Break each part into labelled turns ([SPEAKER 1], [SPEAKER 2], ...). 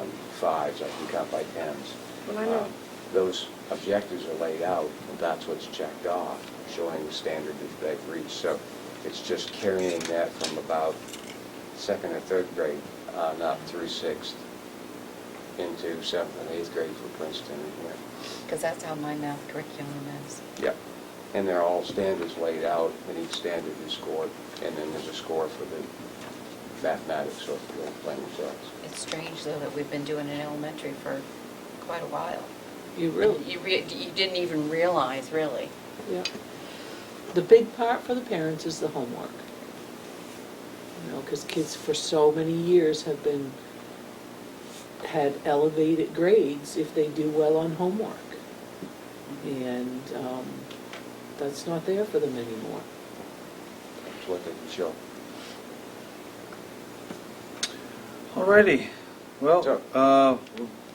[SPEAKER 1] um, fives, I can count by tens.
[SPEAKER 2] Well, I know.
[SPEAKER 1] Um, Those objectives are laid out, and that's what's checked off, showing the standard that they've reached. So it's just carrying that from about second or third grade on up through sixth into seventh and eighth grade for Princeton and here.
[SPEAKER 3] Because that's how my math curriculum is.
[SPEAKER 1] Yep. And they're all standards laid out, and each standard is scored, and then there's a score for the mathematics or the plan results.
[SPEAKER 3] It's strange, though, that we've been doing it in elementary for quite a while.
[SPEAKER 2] You really,
[SPEAKER 3] You rea- you didn't even realize, really.
[SPEAKER 2] yeah. The big part for the parents is the homework. You know, because kids for so many years have been, had elevated grades if they do well on homework. And um, that's not there for them anymore.
[SPEAKER 1] That's what they can show.
[SPEAKER 4] Alrighty, well,
[SPEAKER 1] So-
[SPEAKER 4] uh,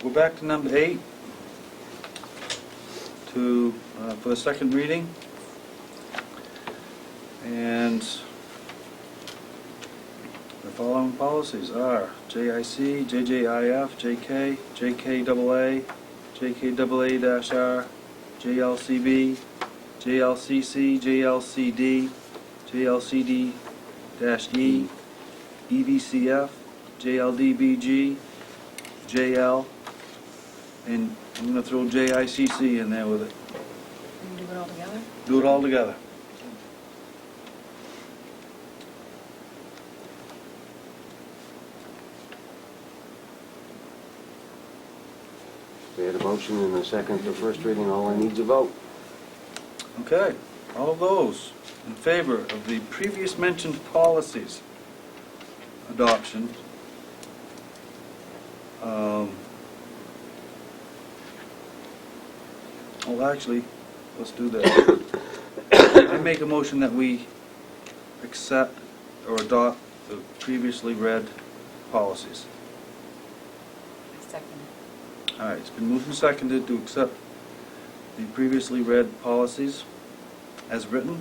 [SPEAKER 4] we'll go back to number eight, to, uh, for the second reading. And the following policies are JIC, JJIF, JK, JKAA, JKAA-R, JLCB, JLCC, JLCD, JLCD-E, E EBCF, JLDBG, JL, and I'm gonna throw JICC in there with it.
[SPEAKER 3] Can we do it all together?
[SPEAKER 4] Do it all together.
[SPEAKER 1] We had a motion and a second for first reading, all I need to vote.
[SPEAKER 4] Okay, all those in favor of the previous mentioned policies adoption, um, well, actually, let's do that. I make a motion that we accept or adopt the previously read policies.
[SPEAKER 3] Second.
[SPEAKER 4] All right, it's been moved and seconded to accept the previously read policies as written.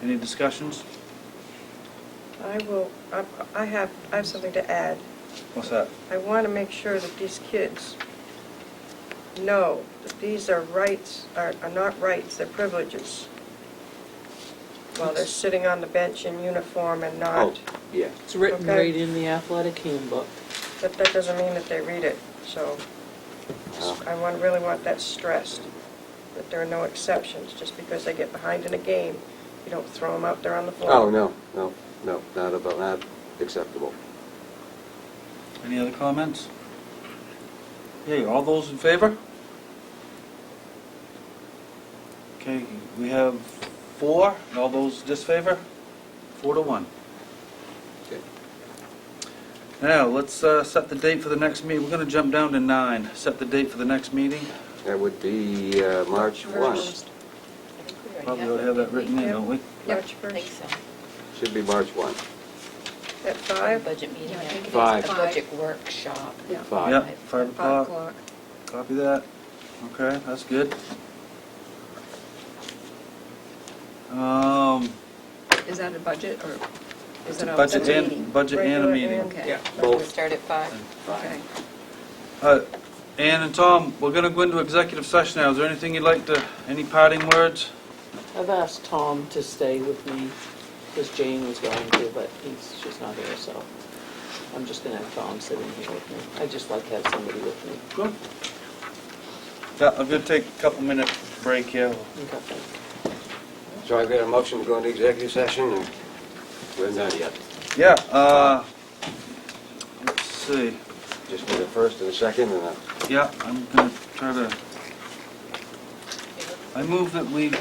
[SPEAKER 4] Any discussions?
[SPEAKER 5] I will, I- I have, I have something to add.
[SPEAKER 4] What's that?
[SPEAKER 5] I want to make sure that these kids know that these are rights, are are not rights, they're privileges, while they're sitting on the bench in uniform and
[SPEAKER 1] Oh,
[SPEAKER 5] not,
[SPEAKER 1] Yeah,
[SPEAKER 2] It's written
[SPEAKER 5] Okay.
[SPEAKER 2] right in the athletic handbook.
[SPEAKER 5] but that doesn't mean that they read it, so I want, really want that stressed, that there are no exceptions, just because they get behind in a game, you don't throw them out there on the floor.
[SPEAKER 1] oh, no, no, no, not about, not acceptable.
[SPEAKER 4] Any other comments? Okay, all those in favor? Okay, we have four, and all those disfavor? Four to one.
[SPEAKER 1] Okay.
[SPEAKER 4] Now, let's uh, set the date for the next meeting. We're going to jump down to nine. Set the date for the next meeting.
[SPEAKER 1] That would be uh, March 1.
[SPEAKER 3] First. I think we already
[SPEAKER 4] Probably ought to have that written in, don't we?
[SPEAKER 3] Yeah, I
[SPEAKER 5] March
[SPEAKER 3] think
[SPEAKER 5] 1st,
[SPEAKER 3] so.
[SPEAKER 1] Should be March 1,
[SPEAKER 5] at
[SPEAKER 3] A
[SPEAKER 5] 5?
[SPEAKER 3] budget meeting.
[SPEAKER 6] Yeah, I think it is
[SPEAKER 1] Five.
[SPEAKER 3] A budget workshop.
[SPEAKER 6] Yeah.
[SPEAKER 1] 5.
[SPEAKER 4] Yep, five
[SPEAKER 5] Five
[SPEAKER 4] o'clock.
[SPEAKER 5] o'clock.
[SPEAKER 4] Copy that. Okay, that's good. Um,
[SPEAKER 6] Is that a budget or is
[SPEAKER 4] it's
[SPEAKER 6] it
[SPEAKER 4] a
[SPEAKER 6] a?
[SPEAKER 4] budget
[SPEAKER 3] meeting.
[SPEAKER 4] and, budget and a
[SPEAKER 5] Regular
[SPEAKER 4] meeting.
[SPEAKER 5] and-
[SPEAKER 6] Okay.
[SPEAKER 3] We'll
[SPEAKER 1] Both.
[SPEAKER 3] start at five.
[SPEAKER 6] Okay.
[SPEAKER 4] Uh, Ann and Tom, we're gonna go into executive session now. Is there anything you'd like to, any parting words?
[SPEAKER 2] I've asked Tom to stay with me, because Jane was going to, but he's just not here, so I'm just gonna have Tom sitting here with me. I just like to have somebody with me.
[SPEAKER 4] Good. Yeah, I'm gonna take a couple minute break here.
[SPEAKER 2] Okay, thanks.
[SPEAKER 1] So I've got a motion to go into executive session, and we're not yet.
[SPEAKER 4] Yeah, uh, let's see.
[SPEAKER 1] Just need a first and a second, and a
[SPEAKER 4] Yeah, I'm gonna try to, I move that we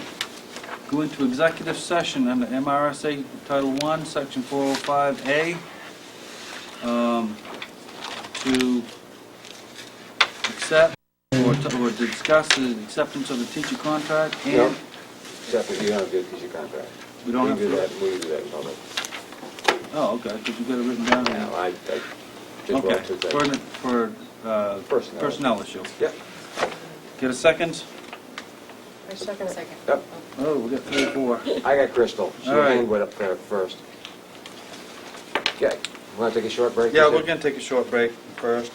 [SPEAKER 4] go into executive session under MRSA Title One, Section four oh five A, um, to accept or to, or discuss the acceptance of the teacher contract and
[SPEAKER 1] No. except if you don't do it because you contract.
[SPEAKER 4] we don't have
[SPEAKER 1] We do
[SPEAKER 4] to.
[SPEAKER 1] that, we do that in public.
[SPEAKER 4] Oh, okay, because you got it written down
[SPEAKER 1] Now,
[SPEAKER 4] here.
[SPEAKER 1] I, I just
[SPEAKER 4] Okay,
[SPEAKER 1] want to
[SPEAKER 4] for,
[SPEAKER 1] that.
[SPEAKER 4] the- for, uh,
[SPEAKER 1] Personnel.
[SPEAKER 4] personnel issue.
[SPEAKER 1] Yep,
[SPEAKER 4] Get a second?
[SPEAKER 5] I second it.
[SPEAKER 3] Second.
[SPEAKER 1] yep.
[SPEAKER 4] Oh, we got three, or four.
[SPEAKER 1] I got Crystal. She
[SPEAKER 4] All right.
[SPEAKER 1] hand went up there first. Okay, want to take a short break?
[SPEAKER 4] Yeah,
[SPEAKER 1] Is it-
[SPEAKER 4] we're gonna take a short break first.